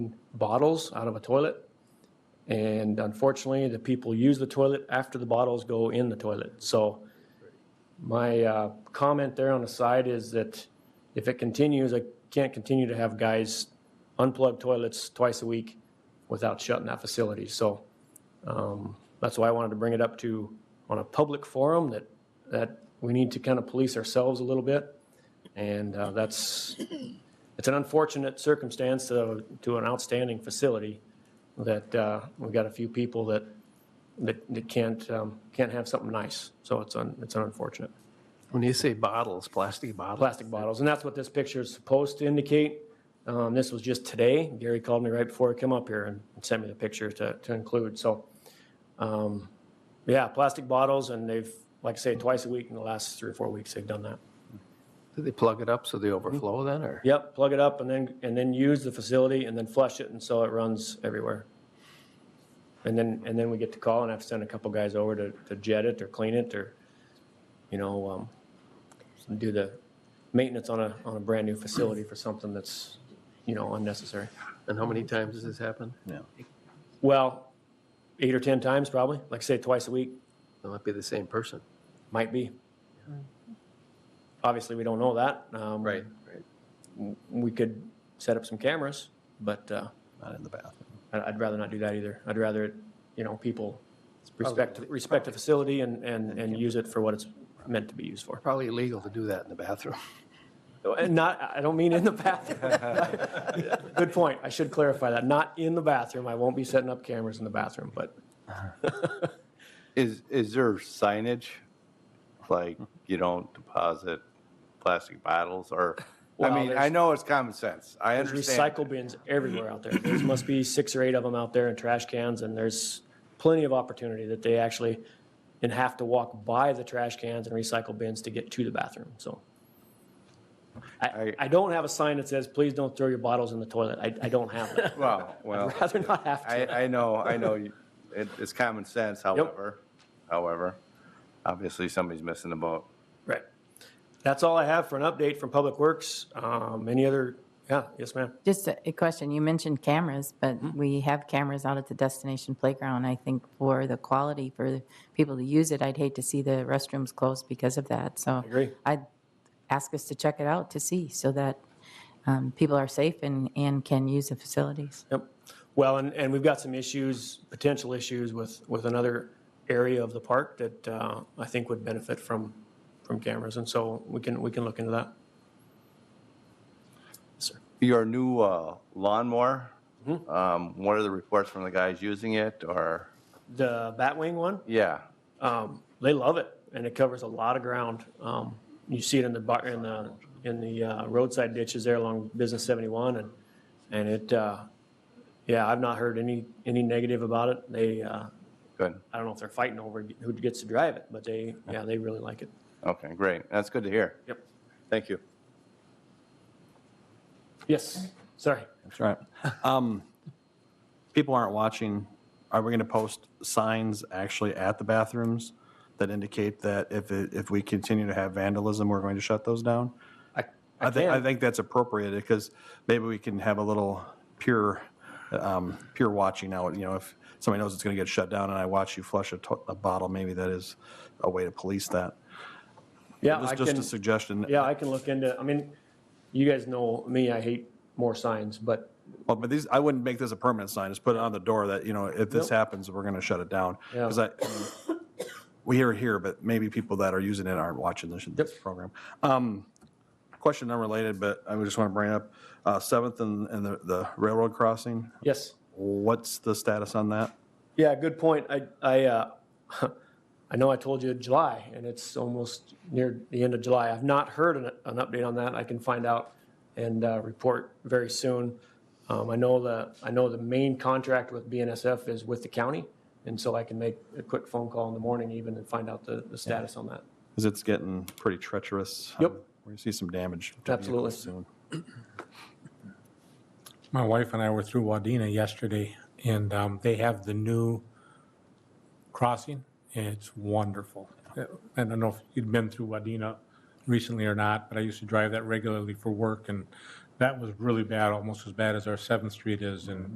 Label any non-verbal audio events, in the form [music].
bottles out of a toilet. And unfortunately, the people use the toilet after the bottles go in the toilet. So my uh, comment there on the side is that if it continues, I can't continue to have guys unplug toilets twice a week without shutting that facility. So um, that's why I wanted to bring it up to, on a public forum, that, that we need to kind of police ourselves a little bit. And uh, that's, it's an unfortunate circumstance to, to an outstanding facility that uh, we've got a few people that, that that can't, um, can't have something nice. So it's, un it's unfortunate. When you say bottles, plastic bottles, Plastic bottles, and that's what this picture is supposed to indicate. Um, This was just today. Gary called me right before I come up here and sent me the picture to, to include, so. um, Yeah, plastic bottles, and they've, like I say, twice a week in the last three or four weeks, they've done that. do they plug it up so they overflow then, or? Yep, plug it up and then, and then use the facility and then flush it, and so it runs everywhere. And then, and then we get to call and I've sent a couple guys over to, to jet it or clean it or, you know, um, do the maintenance on a, on a brand-new facility for something that's, you know, unnecessary. And how many times has this happened? Well, eight or 10 times probably, like I say, twice a week, It might be the same person. might be. Obviously, we don't know that. Um, Right. We could set up some cameras, but, uh, Not in the bathroom. I- I'd rather not do that either. I'd rather, it, you know, people respect, respect the facility and, and, and use it for what it's meant to be used for. Probably illegal to do that in the bathroom. And not, I don't mean in the bathroom. [laughs] Good point. I should clarify that. Not in the bathroom. I won't be setting up cameras in the bathroom, but Is, is there signage? Like, Hmm. you don't deposit plastic bottles or, I Well, mean, I there's- know it's common sense. I there's understand. recycle bins everywhere out there. There must be six or eight of them out there in trash cans, and there's plenty of opportunity that they actually and have to walk by the trash cans and recycle bins to get to the bathroom, so. I, I- I don't have a sign that says, please don't throw your bottles in the toilet. I, I don't have [laughs] that. Well, well, Rather not have I, to. I know, I know. you- It, it's common sense, however, however, obviously somebody's missing the boat. Right. That's all I have for an update from Public Works. Um, any other, yeah, yes, ma'am. Just a a question, you mentioned cameras, but we have cameras out at the destination playground. I think for the quality, for the people to use it, I'd hate to see the restrooms closed because of that, so. agree. I'd ask us to check it out to see, so that um, people are safe and, and can use the facilities. Yep. Well, and, and we've got some issues, potential issues with, with another area of the park that uh, I think would benefit from, from cameras. And so we can, we can look into that. Yes, sir. Your new uh, lawnmower, Mm-hmm. um, what are the reports from the guys using it or, The Batwing one, yeah, um, they love it and it covers a lot of ground. Um, You see it in the, bar- in the, in the uh, roadside ditches there along Business 71 and, and it, uh, yeah, I've not heard any, any negative about it. They, uh, good. I don't know if they're fighting over who gets to drive it, but they, yeah, they really like it. Okay, great. That's good to hear. Yep. Thank you. Yes, sorry. That's right. Um, People aren't watching. Are we going to post signs actually at the bathrooms that indicate that if, it- if we continue to have vandalism, we're going to shut those down? I, I think, I can. think that's appropriate because maybe we can have a little pure, um, pure watching out. You know, if somebody knows it's going to get shut down and I watch you flush a, to- a bottle, maybe that is a way to police that. Yeah, I Just, just can, a suggestion. yeah, I can look into, I mean, you guys know me, I hate more signs, but Well, but these, I wouldn't make this a permanent sign, just put it on the door that, you know, if this Nope. happens, we're gonna shut it down. Yeah. Because I, we hear it here, but maybe people that are using it aren't watching this, this program. Um, Question unrelated, but I just want to bring up, uh, Seventh and, and the- the railroad crossing, yes. what's the status on that? Yeah, good point. I, I, uh, [laughs] I know I told you July, and it's almost near the end of July. I've not heard an, an update on that. I can find out and uh, report very soon. Um, I know the, I know the main contract with BNSF is with the county, and so I can make a quick phone call in the morning even and find out the, the status on that. Because it's getting pretty treacherous. Yep. Um, We're gonna see some damage. to Absolutely. vehicles soon. My wife and I were through Wadena yesterday, and um, they have the new crossing. and It's wonderful. Uh, I don't know if you'd been through Wadena recently or not, but I used to drive that regularly for work, and that was really bad, almost as bad as our Seventh Street is, and